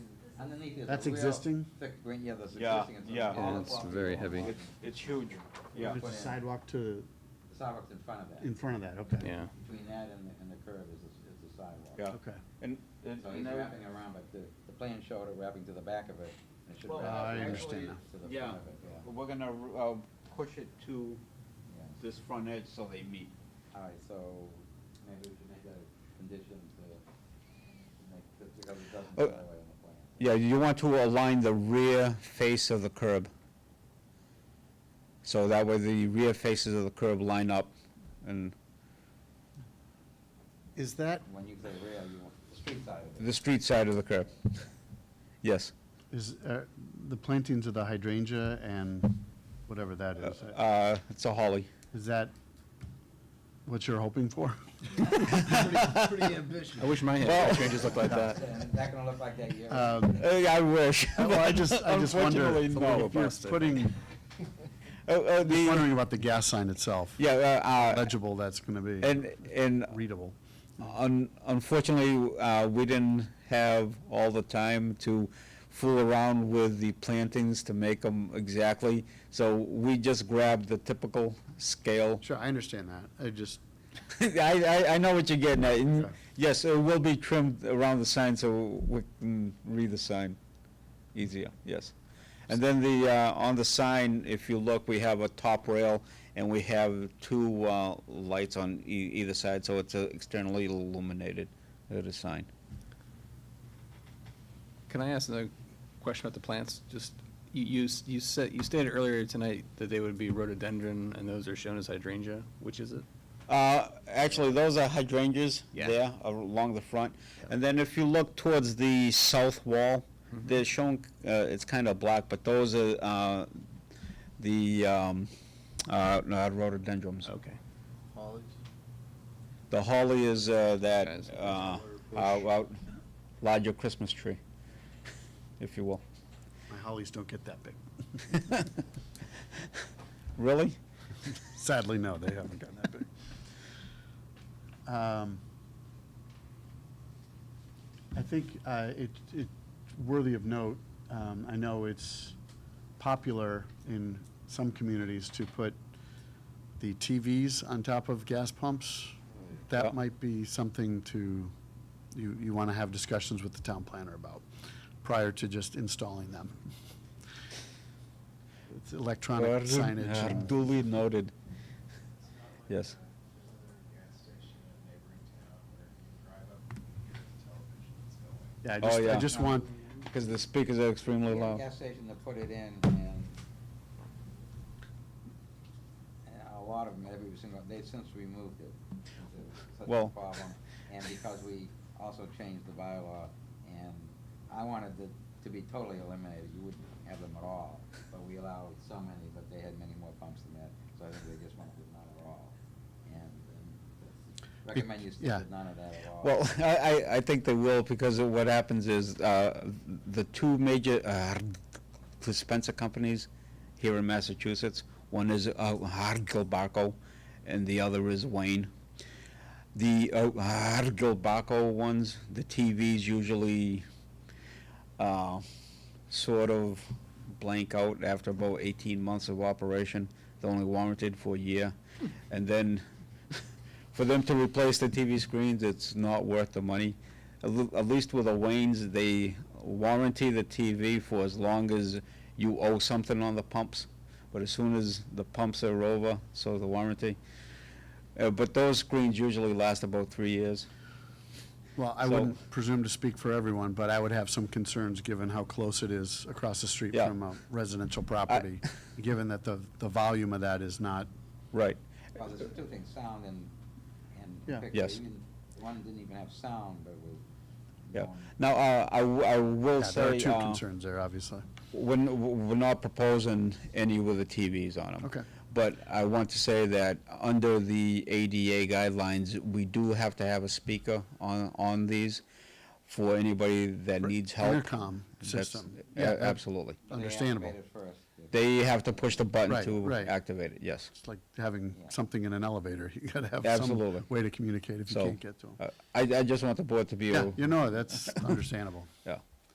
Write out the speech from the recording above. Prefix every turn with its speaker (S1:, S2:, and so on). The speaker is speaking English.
S1: Underneath is a
S2: That's
S1: real
S2: existing?
S1: Thick green, yeah, that's
S3: Yeah,
S1: existing.
S3: yeah.
S1: all
S3: Yeah,
S4: Oh,
S1: the
S3: it's
S1: property
S4: very
S1: along
S4: heavy.
S1: the-
S3: It's, it's huge, yeah.
S2: It's a sidewalk to,
S1: The sidewalk's in front of
S2: in
S1: that.
S2: front of that, okay.
S4: yeah.
S1: Between that and the, and the curb is, the- is the sidewalk.
S3: Yeah.
S2: Okay.
S3: And, and-
S1: So he's
S3: and uh, I-
S1: wrapping around, but the, the plan showed it wrapping to the back of it. and It should
S3: Well,
S1: wrap
S2: I
S1: to the-
S2: understand now.
S1: To the
S3: yeah,
S1: front of it, yeah.
S3: we're gonna, uh, push it to
S1: yeah.
S3: this front edge so they meet.
S1: All right, so maybe we should make that a condition to make, this- because it doesn't
S3: Oh.
S1: show it on the plan.
S3: Yeah, you want to align the rear face of the curb. So that way the rear faces of the curb line up and
S2: Is that,
S1: When you say rear, you want the street side of it.
S3: the street side of the curb. Yes.
S2: is, uh, the plantings of the hydrangea and whatever that is, uh,
S3: Uh, it's a holly.
S2: is that what you're hoping for?
S1: Pretty ambitious.
S4: I wish my
S3: Well-
S4: hand changes looked like
S3: uh,
S4: that.
S1: And that gonna look like that year.
S2: Um,
S3: Hey, Uh, I wish.
S2: Well, I just, I just wonder,
S3: Unfortunately,
S2: if
S3: no.
S2: you're putting,
S3: Oh, oh, the-
S2: wondering about the gas sign itself,
S3: yeah, uh, uh,
S2: legible that's gonna
S3: and,
S2: be,
S3: and
S2: readable.
S3: un- unfortunately, uh, we didn't have all the time to fool around with the plantings to make them exactly. So we just grabbed the typical scale.
S2: Sure, I understand that, I just,
S3: I, I, I know what you're getting at. And
S2: Okay.
S3: Yes, it will be trimmed around the sign so we can read the sign easier, yes. And then the, uh, on the sign, if you look, we have a top rail and we have two, uh, lights on e- either side, so it's uh, externally illuminated, uh, the sign.
S4: Can I ask another question about the plants? Just, you, you s- you said, you stated earlier tonight that they would be rhododendron, and those are shown as hydrangea, which is it?
S3: Uh, actually, those are hydrangeas
S4: Yeah.
S3: there along the front. And then if you look towards the south wall, they're shown, uh, it's kind of black, but those are, uh, the, um, uh, not rhododendrons.
S4: Okay.
S3: The holly is, uh, that,
S4: Guys.
S3: uh, uh, well, larger Christmas tree, if you will.
S2: my hollies don't get that big.
S3: Really?
S2: Sadly, no, they haven't gotten that big. Um, I think uh, it, it worthy of note. Um, I know it's popular in some communities to put the TVs on top of gas pumps. That
S3: Yeah.
S2: might be something to you you want to have discussions with the town planner about prior to just installing them. It's electronic signage. and-
S3: Duly noted. Yes.
S2: Yeah, I
S3: Oh,
S2: just, I
S3: yeah.
S2: just want,
S3: Because the speakers are extremely
S1: We have a
S3: loud.
S1: gas station to put it in and and a lot of them, every single, they've since removed it. It's a- Such a
S3: Well-
S1: problem. And because we also changed the bylaw and I wanted it to be totally eliminated, you wouldn't have them at all. But we allowed so many, but they had many more pumps than that, so I think they just wanted it none at all. And um, recommend you stick
S2: yeah.
S1: with none of that at all.
S3: Well, I, I, I think they will, because of what happens is, uh, the two major, uh, dispenser companies here in Massachusetts, one is, uh, Barco, and the other is Wayne. The, uh, Barco ones, the TVs usually, uh, sort of blank out after about eighteen months of operation. They're only warranted for a year, and then for them to replace the TV screens, it's not worth the money. At l- at least with the Waynes, they warranty the TV for as long as you owe something on the pumps. But as soon as the pumps are over, so the warranty. Uh, but those screens usually last about three years.
S2: well, I
S3: So-
S2: wouldn't presume to speak for everyone, but I would have some concerns given how close it is across the street
S3: Yeah.
S2: from a residential property, given that the, the volume of that is not,
S3: Right.
S1: Well, there's two things, sound and, and
S2: Yeah.
S1: picture.
S3: Yes.
S1: Even- One didn't even have sound, but was.
S3: Yeah.
S1: known.
S3: Now, uh, I, w- I
S2: yeah,
S3: will
S2: there
S3: say
S2: are two
S3: uh,
S2: concerns there, obviously.
S3: we're, n- we're not proposing any with the TVs on them.
S2: Okay.
S3: But I want to say that under the ADA guidelines, we do have to have a speaker on, on these for anybody that needs help.
S2: Intercom
S3: That's- uh,
S2: system.
S3: a-
S2: Yeah, ab-
S3: Absolutely.
S1: They
S2: Understandable.
S1: activated first. If-
S3: They have to push the button
S2: Right,
S3: to
S2: right.
S3: activate it, yes.
S2: It's like having
S1: Yeah.
S2: something in an elevator. You gotta have
S3: Absolutely.
S2: some way to communicate if you
S3: So,
S2: can't get to them.
S3: uh, I, I just want the board to be,
S2: Yeah,
S3: a-
S2: you know, that's understandable.
S3: yeah.